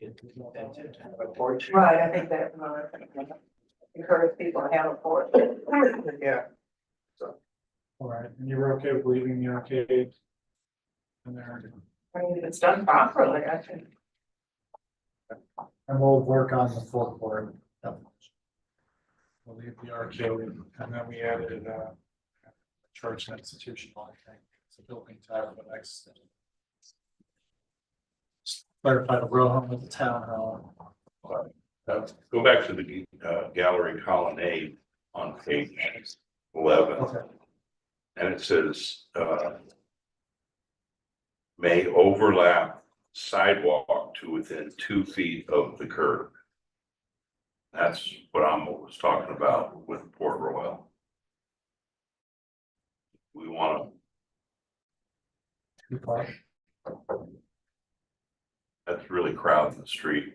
A porch. Right, I think that, uh, encourage people to have a porch. Yeah. All right, and you were okay with leaving the arcade? And there, I mean, if it's done properly, I think. and we'll work on the forecourt. We'll leave the arcade, and then we added uh, a church and institutional, I think, it's a building title, but I. Clarify the row home with the town hall. Uh, Go back to the uh, gallery colonnade on page eleven, Okay, and it says, uh, may overlap sidewalk to within two feet of the curb. That's what I'm was talking about with Port Royal. We want two parts. to, that's really crowding the street.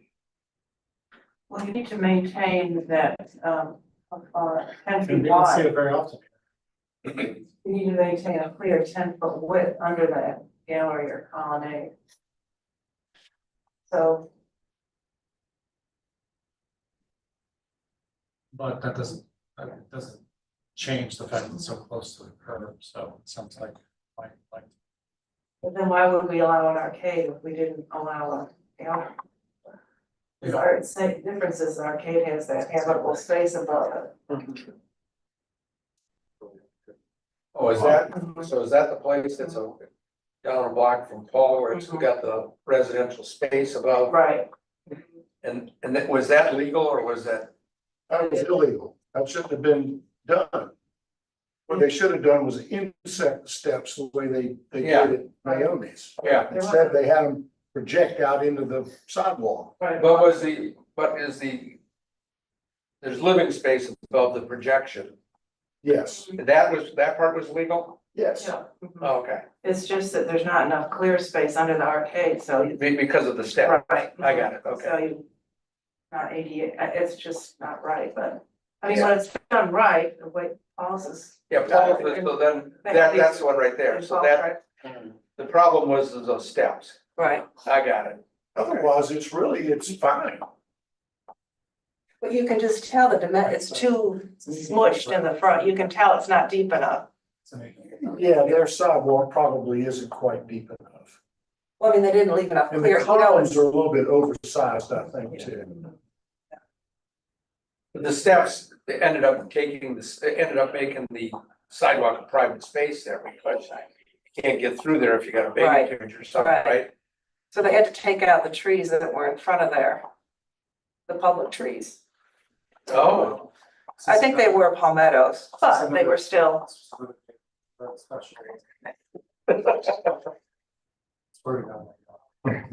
Well, you need to maintain that, um, uh, ten And feet we don't see wide. it very often. You need to maintain a clear ten foot width under that gallery or colonnade. So, But that doesn't, that doesn't change the fact that it's so close to the curb, so it sounds like, like, like. but then why would we allow an arcade if we didn't allow a gallery? Because our, same difference is the arcade has that habitable space above it. Oh, is that, Mhm. so is that the place that's a, down a block from Paul where it's Mhm. got the residential space above? Right, And, and that, was that legal or was that, That was illegal. That shouldn't have been done. What they should have done was inset the steps the way they, they Yeah. did at Naomi's. yeah, Instead, they had them project out into the sidewalk. right. what was the, what is the? There's living space above the projection. Yes, That was, that part was legal? Oh, yes. Yeah, mhm. Okay, It's just that there's not enough clear space under the arcade, so. you- Be- because of the step. Right. I got it, okay. So you, not eighty-eight, it's just not right, but, I mean, when it's done right, the way Paul's is. Yeah, Paul's was- so then, that, that's the one right there. So that, the problem was those steps. Right, I got it. Otherwise, it's really, it's fine. but you can just tell the dimen, it's too smushed in the front, you can tell it's not deep enough. Yeah, their sidewalk probably isn't quite deep enough. Well, I mean, they didn't leave enough And the columns are a little bit oversized, I think, too. The steps they ended up taking this, they ended up making the sidewalk a private space there because you can't get through there if you got a baby carriage or something, Right, right. right? So they had to take out the trees that were in front of there, the public trees. Oh, I think they were palmettos, but they were still. That's special. Swear to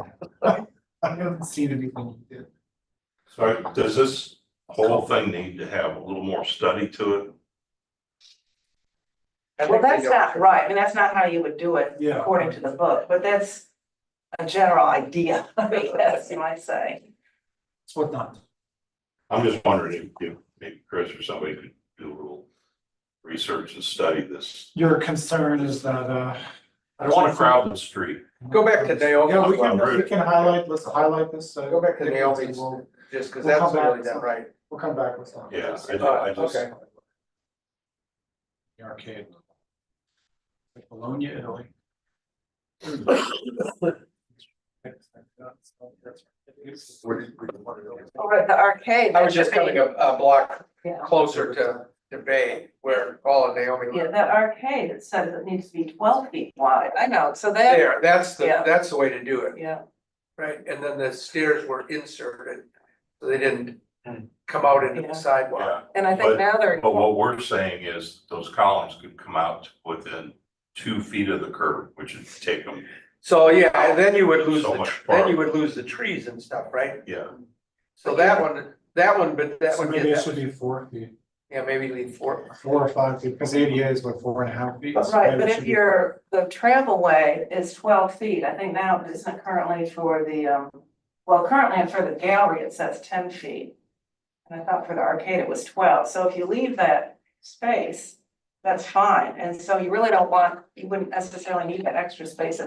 God. I haven't seen anything you did. So does this whole thing need to have a little more study to it? I Well, think they that's don't- not right, I mean, that's not how you would do it Yeah. according to the book, but that's a general idea, I guess you might say. It's what not. I'm just wondering if, if maybe Chris or somebody could do a little research and study this. Your concern is that, uh. I don't want to crowd the street. Go back to Naomi. Yeah, we can, we can highlight, let's highlight this. uh, Go back to Naomi's, We'll, just because We'll that's come back really to not some- right. we'll come back with that. Yeah, I, I just, Okay. The arcade. Like Bologna, Italy. Or Oh, the arcade. I was just coming a, a block Yeah, closer to, to Bay where Paul and Naomi Yeah, were. that arcade, it says it needs to be twelve feet wide. I know, so that, There, that's the, Yeah. that's the way to do it, yeah, right? And then the stairs were inserted, so they didn't Hmm. come out into Yeah. the sidewalk. yeah, and I But- think now they're, but what we're saying is those columns could come out within two feet of the curb, which would take them, So, yeah, and then you would lose, So the much tr- then farther. you would lose the trees and stuff, right? yeah. So that one, that one, but that So one maybe it gets, should be four feet, yeah, maybe leave four. four or five feet, because ADA is what, four and a half feet? so right, maybe but it if should be- your, the travel way is twelve feet, I think now it isn't currently for the, um, well, currently for the gallery, it says ten feet. And I thought for the arcade, it was twelve, so if you leave that space, that's fine, and so you really don't want, you wouldn't necessarily need that extra space at